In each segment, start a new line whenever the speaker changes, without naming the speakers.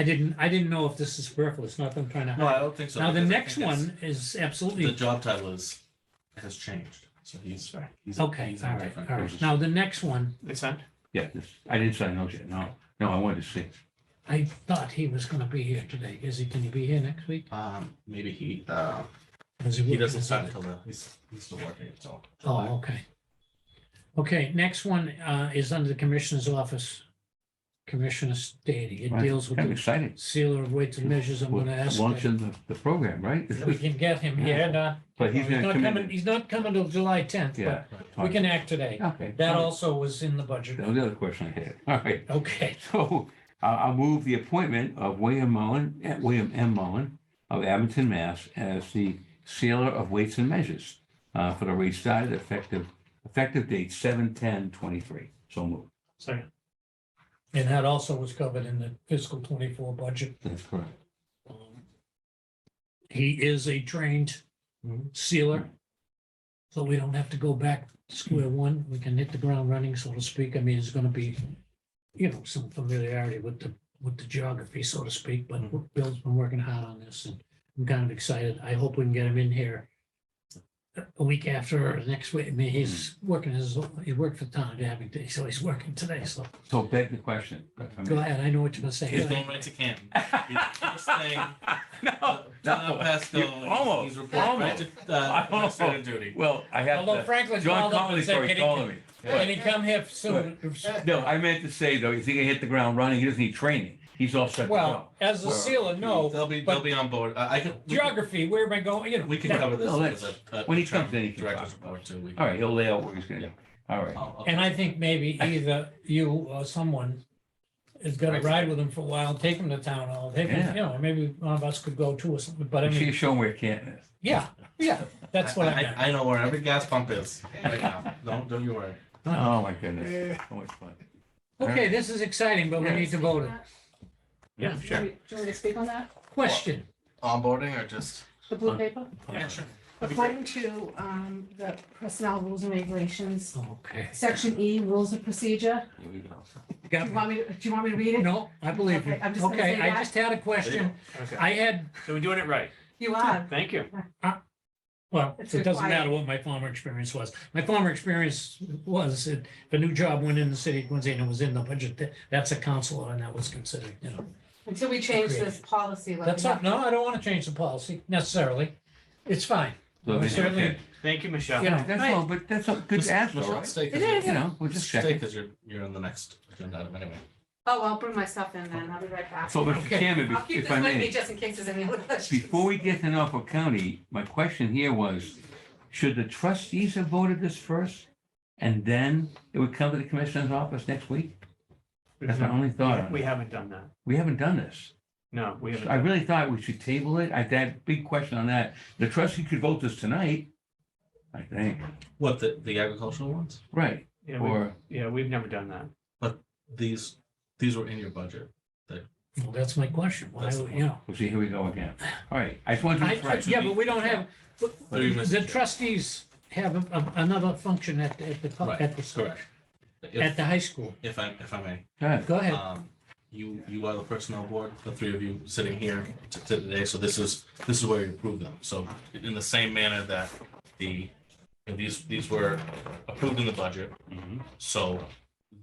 I didn't, I didn't know if this is superfluous, not that I'm trying to
No, I
hide.
don't think so.
Now, the
because I
next
think it's-
one is
The
absolutely,
job title is, has changed, so he's. he's-
okay,
he's in a
all right,
different
all right.
position.
Now, the next one,
They signed?
Yeah, this- I didn't sign those yet. No, no, I wanted to see.
I thought he was gonna be here today. Is he, can he be here next week?
Um, maybe he, uh,
Or is
he
working
doesn't
this
start
other-
until the, he's, he's still working until. July.
Oh, okay. Okay, next one uh, is under the Commissioner's Office, Commissioner Stady. It
Right.
deals with
I'm
the
excited.
sealer of weights and measures. I'm gonna ask that
Launching the, the program, right?
if we can get him here. and, uh,
But he's
He's
gonna
not
come
coming,
in.
he's not coming till July tenth,
Yeah.
but we can act today.
Okay.
That also was in the budget.
That was the other question I had. All right.
Okay,
So I'll, I'll move the appointment of William Mullen, eh, William M. Mullen of Abington, Mass. as the sealer of weights and measures uh, for the rate started effective, effective date seven ten twenty-three. So moved.
Second.
and that also was covered in the fiscal twenty-four budget.
That's correct.
Um, He is a trained sealer. So we don't have to go back to square one. We can hit the ground running, so to speak. I mean, it's gonna be, you know, some familiarity with the, with the geography, so to speak, but
Mm-hmm.
Bill's been working hard on this and I'm kind of excited. I hope we can get him in here a week after or next week. I mean, he's
Mm-hmm.
working his, he worked for the town of Abington, so he's working today, so
So beg the question. if I may.
go ahead. I know what you're gonna say.
He's going right to Canton. He's- First thing,
No,
John
no.
Pasco,
You- almost,
he's reporting right to, uh,
almost.
administrative duty.
Well, I have
Although
to,
Franklin
John
called up
Connolly
and said,
started calling
can he,
me.
can he come here soon?
No, I meant to say though, if he can hit the ground running, he doesn't need training. He's all set to go.
Well, as a
Well,
sealer, no,
They'll be,
but-
they'll be on board. I, I can, we can-
geography, where am I going, you know?
we can
that-
cover this
No,
as
that's-
a- a.
when he comes in, he can
Director's
talk about
report too. We-
All right, he'll lay out what he's gonna do. All right.
I'll- I'll-
And I think maybe either you or someone is gonna ride with him for a while, take him to town hall, take him,
Yeah.
you know, maybe one of us could go too or something, but I
Make sure you
mean,
show him where Canton is.
yeah, yeah, that's what I
I,
meant.
I know where every gas pump is right now. Don't, don't you worry.
Oh, my goodness. So much fun.
Okay, this is exciting, but we
Yeah.
need to vote it.
Yeah,
Do you want me to speak on that?
Question,
Onboarding or just?
The blue paper?
Yeah, sure. That'd be great.
According to um, the personnel rules and regulations,
okay.
section E, rules of procedure,
Here we go.
do
Got
you
me.
want me, to- do you want me to read it?
No, I believe you.
Okay, I'm just gonna
Okay,
say
I
that.
just had a question.
Okay.
I had,
So we're doing it right.
You are.
Thank you.
well,
It's
it doesn't
required.
matter what my former experience was. My former experience was, that if a new job went in the city of Quincy and it was in the budget, that- that's a counselor and that was considered, you know.
Until we change this policy. let me
That's
know.
not, no, I don't want to change the policy necessarily. It's fine.
So
We
they-
certainly-
okay.
Thank you, Michelle.
Yeah.
Yeah, That's all, but that's a good
Just-
ask,
Michelle,
though, right?
Stay,
It is.
because
You know, we're just checking.
you're, you're on the next agenda item anyway.
Oh, I'll bring my stuff in then, I'll be right back.
So, Mr.
Okay.
Chairman,
I'll
if-
keep
if
this
I
with me
may,
just in case there's any other questions.
before we get to Norfolk County, my question here was, should the trustees have voted this first? And then it would come to the commissioner's office next week? That's my only thought. on
Mm-hmm. We
it.
haven't done that.
We haven't done this.
No, we haven't.
I really thought we should table it. I, that big question on that, the trustee could vote this tonight, I think,
What, the, the agricultural ones?
right?
Yeah, we-
Or,
yeah, we've never done that.
These, these were in your budget.
Well, that's my question. Why,
That's the
you know?
well, see, here we go again. All right, I just wanted to.
I-
do
I-
this
Yeah,
right.
but we don't have,
Through you, Mr.
the
Chair.
trustees have a- a- another function at, the- at the, co-
Right,
at the,
Correct.
at
If,
the high school.
if I, if I may,
Go ahead.
Go ahead.
um, you, you are the personnel board, the three of you sitting here t- t- today, so this is, this is where you approve them. So in the same manner that the, and these, these were approved in the budget,
Mm-hmm.
Mhm.
so.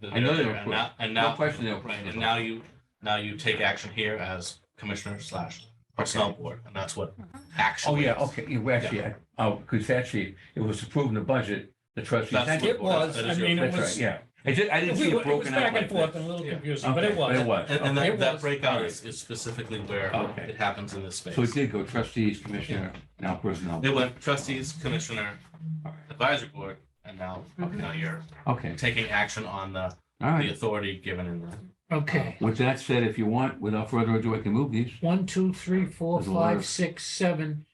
the-
I know they were
And now, and
No
now,
question there.
right, and now you, now you take action here as commissioner slash personnel board, and that's what action.
Oh, yeah,
is.
okay, you actually, I- oh, because actually, it was approved in the budget, the trustees.
That's
had
what-
to
It
vote.
was,
that
I
is your-
mean, it
That's right,
was,
yeah. I did I
it
didn't
was
see it
it was
broken out
back
like
and forth
this.
and a little
Yeah.
confusing, but
Okay,
it was.
It was.
And,
okay.
and
It
that, that
was-
breakout is, is specifically where
Okay.
it happens in this space.
So it did go trustees, commissioner, now personnel.
It went trustees, commissioner, advisory board, and now, now you're
Okay,
taking action on the,
all
the
right.
authority given in the.
Okay,
With that said, if you want, without further ado, I can move these.
one, two, three, four,
There's a lot
five,
of-
six, seven,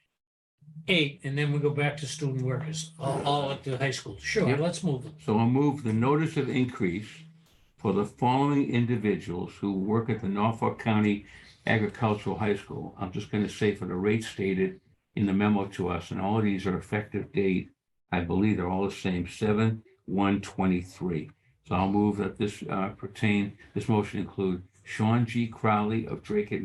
eight, and then we go back to student workers, all, all at the high school. Sure,
Yep.
let's move them.
So I'll move the notice of increase for the following individuals who work at the Norfolk County Agricultural High School. I'm just going to say for the rate stated in the memo to us, and all of these are effective date, I believe they're all the same, seven, one, twenty-three. So I'll move that this uh, pertain, this motion include Sean G. Crowley of Drake and